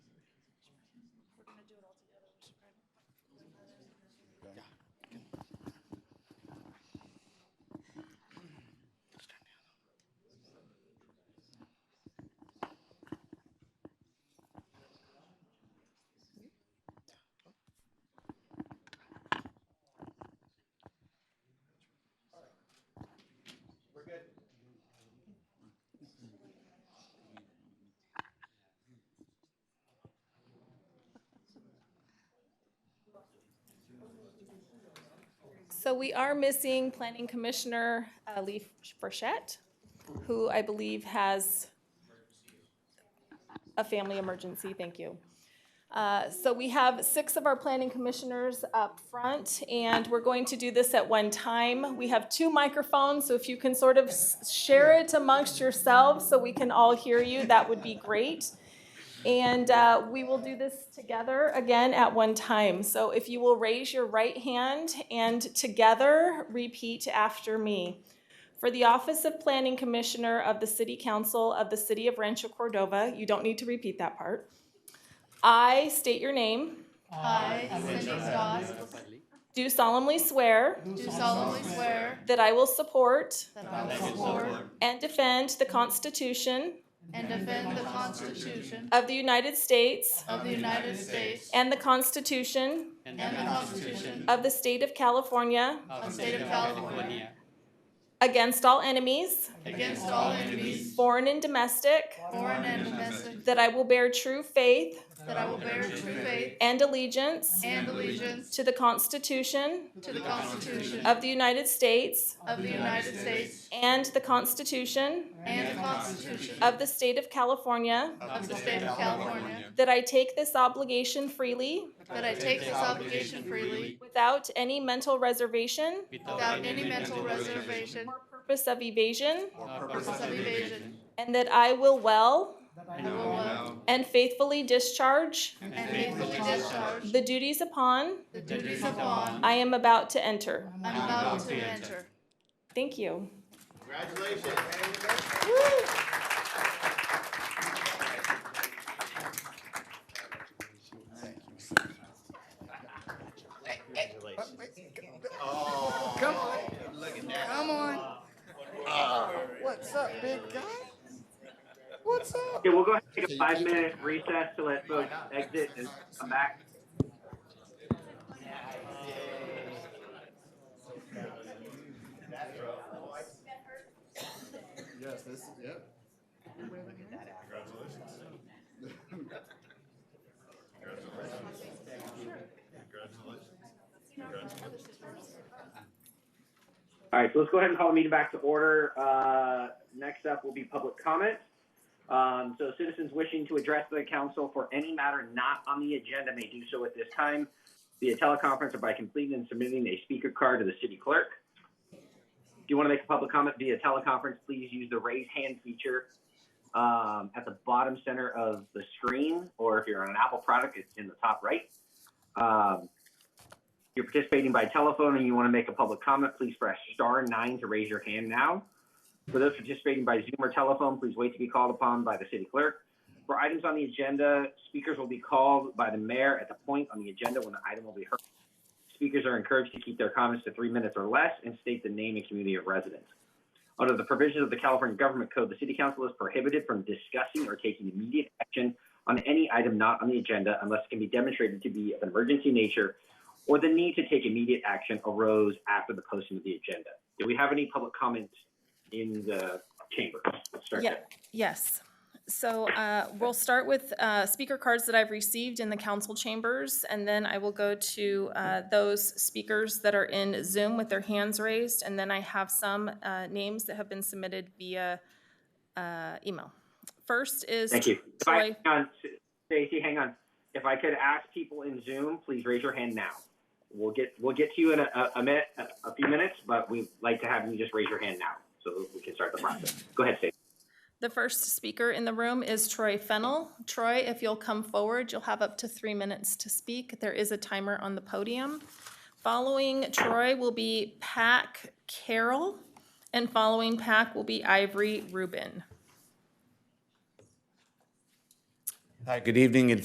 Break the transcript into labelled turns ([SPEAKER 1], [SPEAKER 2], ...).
[SPEAKER 1] So we are missing Planning Commissioner uh, Lee Frechette, who I believe has a family emergency, thank you. Uh, So we have six of our planning commissioners up front, and we're going to do this at one time. We have two microphones, so if you can sort of s- share it amongst yourselves so we can all hear you, that would be great. And uh, we will do this together again at one time. So if you will raise your right hand and together repeat after me. For the Office of Planning Commissioner of the City Council of the City of Rancho Cordova, you don't need to repeat that part. I state your name,
[SPEAKER 2] I, Cindy Stoss,
[SPEAKER 1] do solemnly swear
[SPEAKER 2] do solemnly swear
[SPEAKER 1] that I will support
[SPEAKER 2] that I will support
[SPEAKER 1] and defend the Constitution
[SPEAKER 2] and defend the Constitution
[SPEAKER 1] of the United States
[SPEAKER 2] of the United States
[SPEAKER 1] and the Constitution
[SPEAKER 3] and
[SPEAKER 2] and the Constitution
[SPEAKER 1] of the State of California
[SPEAKER 3] of the
[SPEAKER 2] of
[SPEAKER 3] Uh, State of California
[SPEAKER 1] against all enemies,
[SPEAKER 2] against all enemies,
[SPEAKER 1] foreign and domestic,
[SPEAKER 2] foreign and domestic,
[SPEAKER 1] that I will bear true faith
[SPEAKER 2] that I will bear true faith
[SPEAKER 1] and allegiance
[SPEAKER 2] and allegiance
[SPEAKER 1] to the Constitution
[SPEAKER 2] to the Constitution
[SPEAKER 1] of the United States
[SPEAKER 2] of the United States
[SPEAKER 1] and the Constitution
[SPEAKER 2] and the Constitution
[SPEAKER 1] of the State of California,
[SPEAKER 2] of the State of California,
[SPEAKER 1] that I take this obligation freely
[SPEAKER 2] that I take this obligation freely
[SPEAKER 1] without any mental reservation,
[SPEAKER 2] without any mental reservation
[SPEAKER 1] purpose of evasion,
[SPEAKER 3] or
[SPEAKER 2] purpose of evasion,
[SPEAKER 1] and that I will well
[SPEAKER 2] and will well uh,
[SPEAKER 1] and faithfully discharge
[SPEAKER 2] and faithfully discharge
[SPEAKER 1] the duties upon
[SPEAKER 2] the duties upon
[SPEAKER 1] I am about to enter.
[SPEAKER 2] I'm about to enter.
[SPEAKER 1] Thank you.
[SPEAKER 4] Congratulations.
[SPEAKER 5] Come on,
[SPEAKER 4] Oh. Look at that.
[SPEAKER 5] come on. What's up, big guy? What's up?
[SPEAKER 6] Okay, we'll go ahead and take a five minute recess to let folks exit and come back.
[SPEAKER 5] Yes, this, yep.
[SPEAKER 6] All right, so let's go ahead and call the meeting back to order. Uh, Next up will be public comment. Um, So citizens wishing to address the council for any matter not on the agenda may do so at this time via teleconference or by completing and submitting a speaker card to the city clerk. If you want to make a public comment via teleconference, please use the raise hand feature um, at the bottom center of the screen, or if you're on an Apple product, it's in the top right. Um, you're participating by telephone and you want to make a public comment, please press star nine to raise your hand now. For those participating by Zoom or telephone, please wait to be called upon by the city clerk. For items on the agenda, speakers will be called by the mayor at the point on the agenda when the item will be heard. Speakers are encouraged to keep their comments to three minutes or less and state the name and community of residence. Under the provisions of the California Government Code, the city council is prohibited from discussing or taking immediate action on any item not on the agenda unless it can be demonstrated to be of an emergency nature or the need to take immediate action arose after the posting of the agenda. Do we have any public comments in the chamber? Let's start
[SPEAKER 1] Yeah.
[SPEAKER 6] there.
[SPEAKER 1] Yes. So uh, we'll start with uh, speaker cards that I've received in the council chambers, and then I will go to uh, those speakers that are in Zoom with their hands raised, and then I have some uh, names that have been submitted via uh, email. First is.
[SPEAKER 6] Thank you. If I,
[SPEAKER 1] Troy.
[SPEAKER 6] hang on, Stacy, hang on. If I could ask people in Zoom, please raise your hand now. We'll get, we'll get to you in a, a- a minute, a- a few minutes, but we'd like to have you just raise your hand now so we can start the process. Go ahead, Stacy.
[SPEAKER 1] The first speaker in the room is Troy Fennel. Troy, if you'll come forward, you'll have up to three minutes to speak. There is a timer on the podium. Following Troy will be Pack Carroll, and following Pack will be Ivory Rubin.
[SPEAKER 7] Hi, good evening.